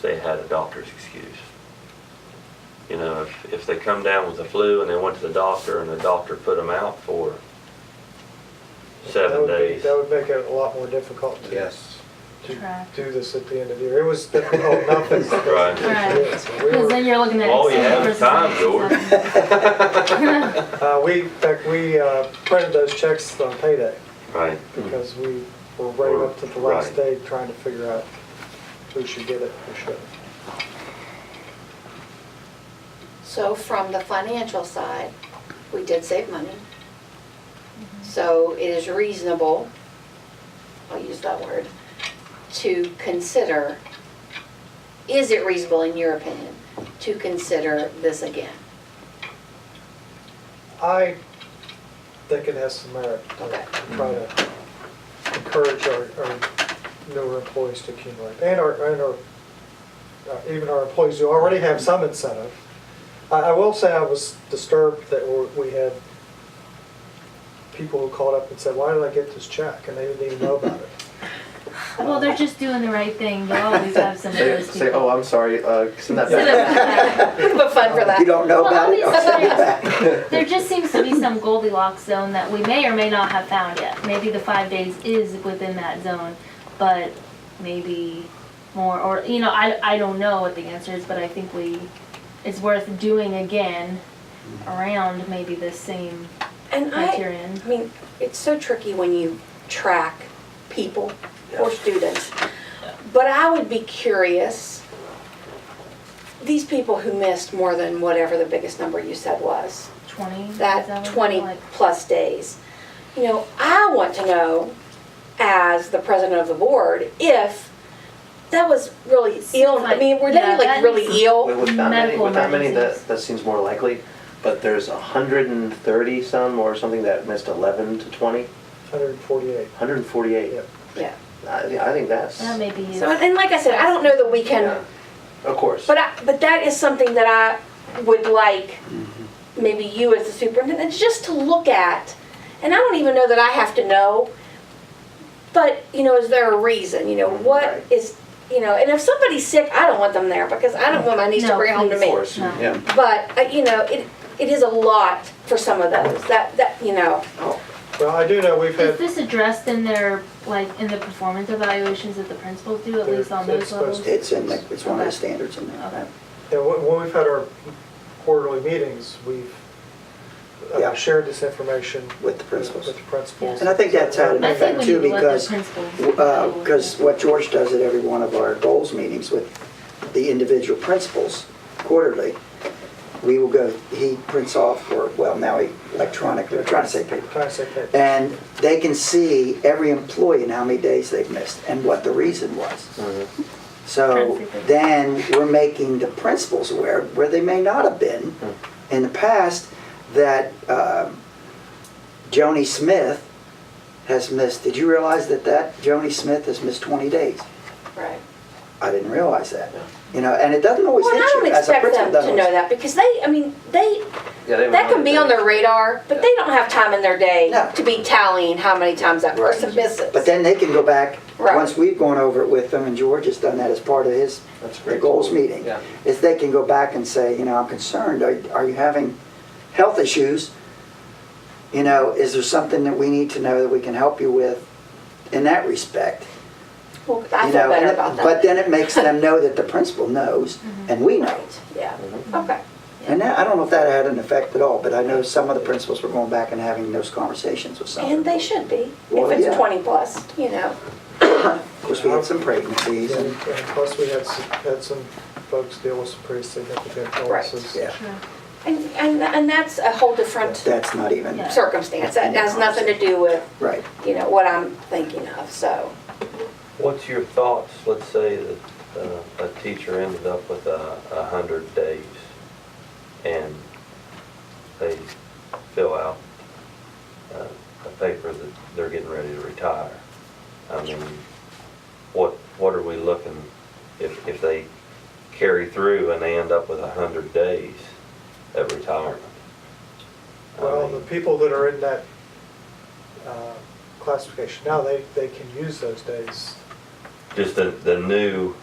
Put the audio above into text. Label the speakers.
Speaker 1: they had a doctor's excuse. You know, if, if they come down with the flu and they went to the doctor and the doctor put them out for
Speaker 2: That
Speaker 1: seven
Speaker 2: would be-
Speaker 1: days.
Speaker 2: That would make it a lot more difficult to,
Speaker 3: Yes.
Speaker 2: to
Speaker 4: Track.
Speaker 2: do this at the end of the year. It was difficult enough as. as it
Speaker 1: Right.
Speaker 2: is. And we
Speaker 4: Because
Speaker 2: were-
Speaker 4: then you're looking at.
Speaker 1: Well, you
Speaker 4: Excel
Speaker 1: have
Speaker 4: versus
Speaker 1: time,
Speaker 4: Excel.
Speaker 2: Uh, we, in fact, we uh, printed those checks on payday
Speaker 1: Right.
Speaker 2: because we were right up to the last
Speaker 1: Right.
Speaker 2: day trying to figure out who should get it, who shouldn't.
Speaker 5: So from the financial side, we did save money. So it is reasonable, I'll use that word, to consider, is it reasonable in your opinion, to consider this again?
Speaker 2: I think it has some merit to
Speaker 5: Okay.
Speaker 2: try to encourage our, our newer employees to accumulate, and our, and our, uh, even our employees who already have some incentive. I, I will say I was disturbed that we're- we had people who called up and said, why did I get this check? And they didn't even know about it.
Speaker 4: Well, they're just doing the right thing. They always have some of
Speaker 3: Say,
Speaker 4: those
Speaker 3: say,
Speaker 4: people.
Speaker 3: oh, I'm sorry, uh, send that
Speaker 4: Send
Speaker 3: back.
Speaker 4: it back.
Speaker 5: Have a fun for that.
Speaker 6: You don't know
Speaker 4: Well,
Speaker 6: about it? I'll send it back.
Speaker 4: There just seems to be some Goldilocks zone that we may or may not have found yet. Maybe the five days is within that zone, but maybe more, or, you know, I, I don't know what the answer is, but I think we, it's worth doing again around maybe the same
Speaker 5: And I,
Speaker 4: criterion.
Speaker 5: I mean, it's so tricky when you track people or students. But I would be curious, these people who missed more than whatever the biggest number you said was,
Speaker 4: Twenty? is
Speaker 5: that
Speaker 4: what you
Speaker 5: 20
Speaker 4: like?
Speaker 5: plus days. You know, I want to know, as the president of the board, if that was really ill, I mean, were
Speaker 4: Yeah,
Speaker 5: they like
Speaker 4: that
Speaker 5: really
Speaker 4: needs-
Speaker 5: ill?
Speaker 3: With that many,
Speaker 4: Medical
Speaker 3: with that many,
Speaker 4: emergencies.
Speaker 3: that, that seems more likely, but there's hundred and thirty some or something that missed eleven to twenty,
Speaker 2: 148.
Speaker 3: hundred and forty-eight.
Speaker 2: Yeah.
Speaker 5: Yeah.
Speaker 3: I, thi- I think that's,
Speaker 4: That
Speaker 3: yeah,
Speaker 4: may be.
Speaker 5: So, and like I said, I don't know that we can,
Speaker 3: of course.
Speaker 5: but I, but that is something that I would like, maybe you as the superintendent, just to look at. And I don't even know that I have to know, but, you know, is there a reason, you know, what
Speaker 3: Right.
Speaker 5: is, you know, and if somebody's sick, I don't want them there, because I don't want my niece to
Speaker 4: No,
Speaker 5: bring it home to
Speaker 4: please.
Speaker 5: me.
Speaker 3: Of course,
Speaker 4: No.
Speaker 3: yeah.
Speaker 5: But, uh, you know, it, it is a lot for some of those, that, that, you know.
Speaker 2: Well, I do know we've had,
Speaker 4: Is this addressed in their, like, in the performance evaluations that the principals do, at least on
Speaker 2: It's
Speaker 4: those
Speaker 2: supposed
Speaker 4: levels?
Speaker 2: to-
Speaker 6: It's in, the- it's one of the standards in
Speaker 4: Okay.
Speaker 6: there.
Speaker 2: yeah, when when we've had our quarterly meetings, we've uh,
Speaker 6: Yeah.
Speaker 2: shared this information.
Speaker 6: With the principals.
Speaker 2: With the principals.
Speaker 6: And I think that's had an
Speaker 4: I think
Speaker 6: effect
Speaker 4: we need
Speaker 6: too,
Speaker 4: to let the
Speaker 6: because, uh,
Speaker 4: principals. deal
Speaker 6: because
Speaker 4: with it.
Speaker 6: what George does at every one of our goals meetings with the individual principals quarterly, we will go, he prints off, or, well, now he electronically, I'm trying to say paper.
Speaker 2: Trying to say that.
Speaker 6: And they can see every employee and how many days they've missed and what the reason was. So then we're making the principals aware where they may not have been in the past that um, Joni Smith has missed. Did you realize that that Joni Smith has missed 20 days?
Speaker 5: Right.
Speaker 6: I didn't realize that. You know, and it doesn't always
Speaker 5: Well, and I
Speaker 6: hit
Speaker 5: don't
Speaker 6: you as a
Speaker 5: expect them
Speaker 6: principal.
Speaker 5: to know that, because they, I mean, they,
Speaker 3: Yeah, they would
Speaker 5: that
Speaker 3: know
Speaker 5: can be on their radar, but they don't have time in their day
Speaker 6: No.
Speaker 5: to be tallying how many times that
Speaker 6: Right.
Speaker 5: person misses.
Speaker 6: But then they can go back,
Speaker 5: Right.
Speaker 6: once we've gone over it with them, and George has done that as part of his
Speaker 3: That's a
Speaker 6: the
Speaker 3: great
Speaker 6: goals
Speaker 3: tool.
Speaker 6: meeting,
Speaker 3: Yeah.
Speaker 6: is they can go back and say, you know, I'm concerned, are are you having health issues? You know, is there something that we need to know that we can help you with in that respect?
Speaker 5: Well, I feel
Speaker 6: You know, and
Speaker 5: better
Speaker 6: it-
Speaker 5: about that. Mm-hmm.
Speaker 6: But then it makes them know that the principal knows, and we know.
Speaker 5: Right, yeah,
Speaker 6: Mm-hmm.
Speaker 5: okay.
Speaker 6: And that, I don't know if that had an effect at all, but I know some of the principals were going back and having those conversations with some. of
Speaker 5: And
Speaker 6: them.
Speaker 5: they should be,
Speaker 6: Well,
Speaker 5: if it's
Speaker 6: yeah.
Speaker 5: twenty plus, you know.
Speaker 6: Of course, we had some pregnancies
Speaker 2: And
Speaker 6: and,
Speaker 2: and plus, we had some, had some folks deal with some pretty significant illnesses.
Speaker 6: yeah,
Speaker 4: Sure.
Speaker 5: And, and, and that's a whole different
Speaker 6: that's not even,
Speaker 4: Yeah.
Speaker 5: circumstance, that has nothing to do with,
Speaker 6: right.
Speaker 5: you know, what I'm thinking of, so.
Speaker 1: What's your thoughts, let's say that uh, a teacher ended up with a, a hundred days and they fill out uh, a paper that they're getting ready to retire. I mean, what, what are we looking, if, if they carry through and they end up with a hundred days of retirement? I
Speaker 2: Well,
Speaker 1: mean-
Speaker 2: the people that are in that uh, classification now, they, they can use those days.
Speaker 1: Just the, the new